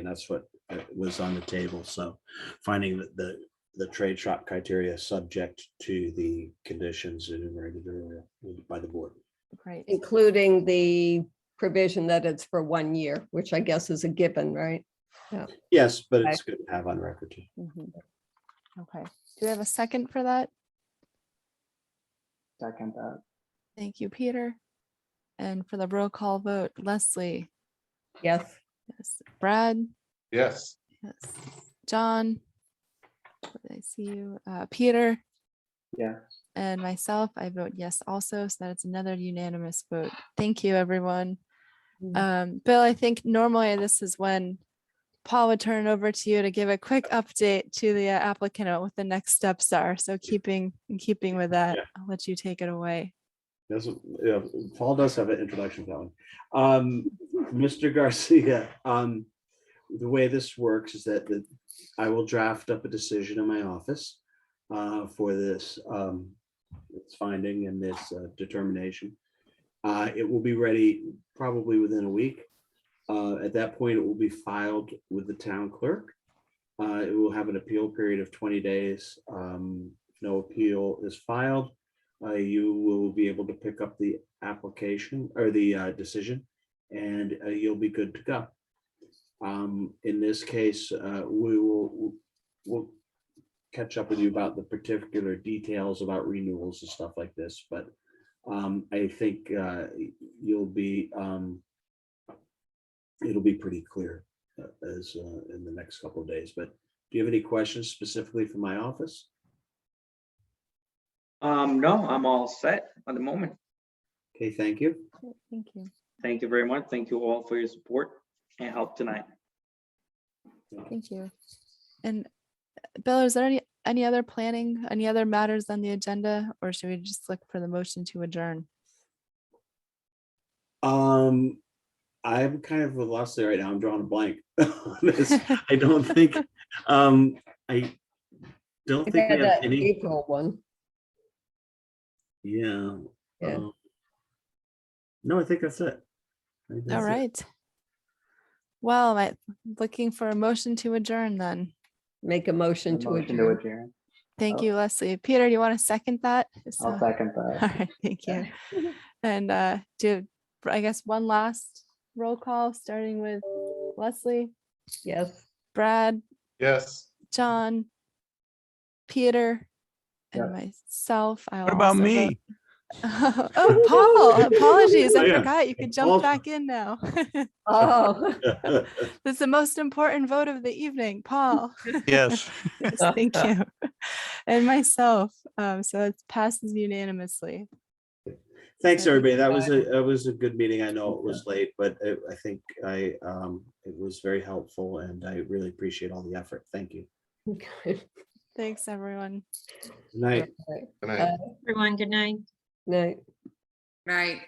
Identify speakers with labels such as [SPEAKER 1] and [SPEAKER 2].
[SPEAKER 1] And that's what uh, was on the table. So finding that the, the trade shop criteria subject to the conditions enumerated earlier by the board.
[SPEAKER 2] Great.
[SPEAKER 3] Including the provision that it's for one year, which I guess is a given, right?
[SPEAKER 1] Yes, but it's good to have on record. too.
[SPEAKER 2] Mhm. Okay, do we have a second for that?
[SPEAKER 4] Second that.
[SPEAKER 2] Thank you, Peter. And for the roll call vote, Leslie,
[SPEAKER 3] Yes.
[SPEAKER 2] yes, Brad,
[SPEAKER 5] Yes.
[SPEAKER 2] yes, John. I see you, uh, Peter.
[SPEAKER 4] Yeah.
[SPEAKER 2] And myself, I vote yes also, so that it's another unanimous vote. Thank you, everyone.
[SPEAKER 3] Mm.
[SPEAKER 2] Um, Bill, I think normally this is when Paul would turn it over to you to give a quick update to the uh, applicant on what the next steps are. So keeping, in keeping with that,
[SPEAKER 1] Yeah.
[SPEAKER 2] I'll let you take it away.
[SPEAKER 1] Doesn't, yeah, Paul does have an introduction to that one. Um, Mr. Garcia, um, the way this works is that the- I will draft up a decision in my office uh, for this, um, this finding and this uh, determination. Uh, it will be ready probably within a week. Uh, at that point, it will be filed with the town clerk. Uh, it will have an appeal period of twenty days. Um, if no appeal is filed, uh, you will be able to pick up the application or the uh, decision and uh, you'll be good to go. Um, in this case, uh, we will, we'll catch up with you about the particular details about renewals and stuff like this, but um, I think uh, you'll be, um, it'll be pretty clear uh, as uh, in the next couple of days, but do you have any questions specifically for my office?
[SPEAKER 4] Um, no, I'm all set at the moment.
[SPEAKER 1] Okay, thank you.
[SPEAKER 2] Thank you.
[SPEAKER 4] Thank you very much. Thank you all for your support and help tonight.
[SPEAKER 2] Thank you. And uh, Bill, is there any, any other planning, any other matters on the agenda, or should we just look for the motion to adjourn?
[SPEAKER 1] Um, I'm kind of lost there right now. I'm drawing a blank. on this. I don't think, um, I don't
[SPEAKER 3] I
[SPEAKER 1] think we
[SPEAKER 3] had
[SPEAKER 1] have
[SPEAKER 3] that
[SPEAKER 1] any,
[SPEAKER 3] April one.
[SPEAKER 1] yeah.
[SPEAKER 3] Yeah.
[SPEAKER 1] um, No, I think that's it. I think
[SPEAKER 2] All
[SPEAKER 1] that's it.
[SPEAKER 2] right. Well, I'm looking for a motion to adjourn then.
[SPEAKER 3] Make a motion to
[SPEAKER 4] Motion to
[SPEAKER 3] adjourn.
[SPEAKER 4] adjourn.
[SPEAKER 2] Thank
[SPEAKER 4] Oh.
[SPEAKER 2] you, Leslie. Peter, you want to second that? If
[SPEAKER 4] I'll
[SPEAKER 2] so-
[SPEAKER 4] second
[SPEAKER 2] All
[SPEAKER 4] that.
[SPEAKER 2] right, thank you. And uh, do, I guess, one last roll call, starting with Leslie,
[SPEAKER 3] Yes.
[SPEAKER 2] Brad,
[SPEAKER 5] Yes.
[SPEAKER 2] John, Peter, and myself.
[SPEAKER 6] What about me?
[SPEAKER 2] Oh, Paul, apologies.
[SPEAKER 1] Oh,
[SPEAKER 2] I
[SPEAKER 1] yeah.
[SPEAKER 2] forgot. You could
[SPEAKER 1] Paul-
[SPEAKER 2] jump back in now.
[SPEAKER 3] Oh,
[SPEAKER 2] That's the most important vote of the evening, Paul.
[SPEAKER 6] Yes.
[SPEAKER 2] Yes,
[SPEAKER 3] Oh.
[SPEAKER 2] Thank you. And myself. Um, So it passes unanimously.
[SPEAKER 1] Thanks,
[SPEAKER 2] Okay.
[SPEAKER 1] everybody. That was a, that was a good meeting. I know it was late, but I, I think I, um, it was very helpful and I really appreciate all the effort. Thank you.
[SPEAKER 3] okay.
[SPEAKER 2] Thanks, everyone.
[SPEAKER 1] Good Night.
[SPEAKER 3] All right.
[SPEAKER 5] Good night.
[SPEAKER 3] Uh,
[SPEAKER 7] Everyone, good night.
[SPEAKER 3] Night.
[SPEAKER 8] Right.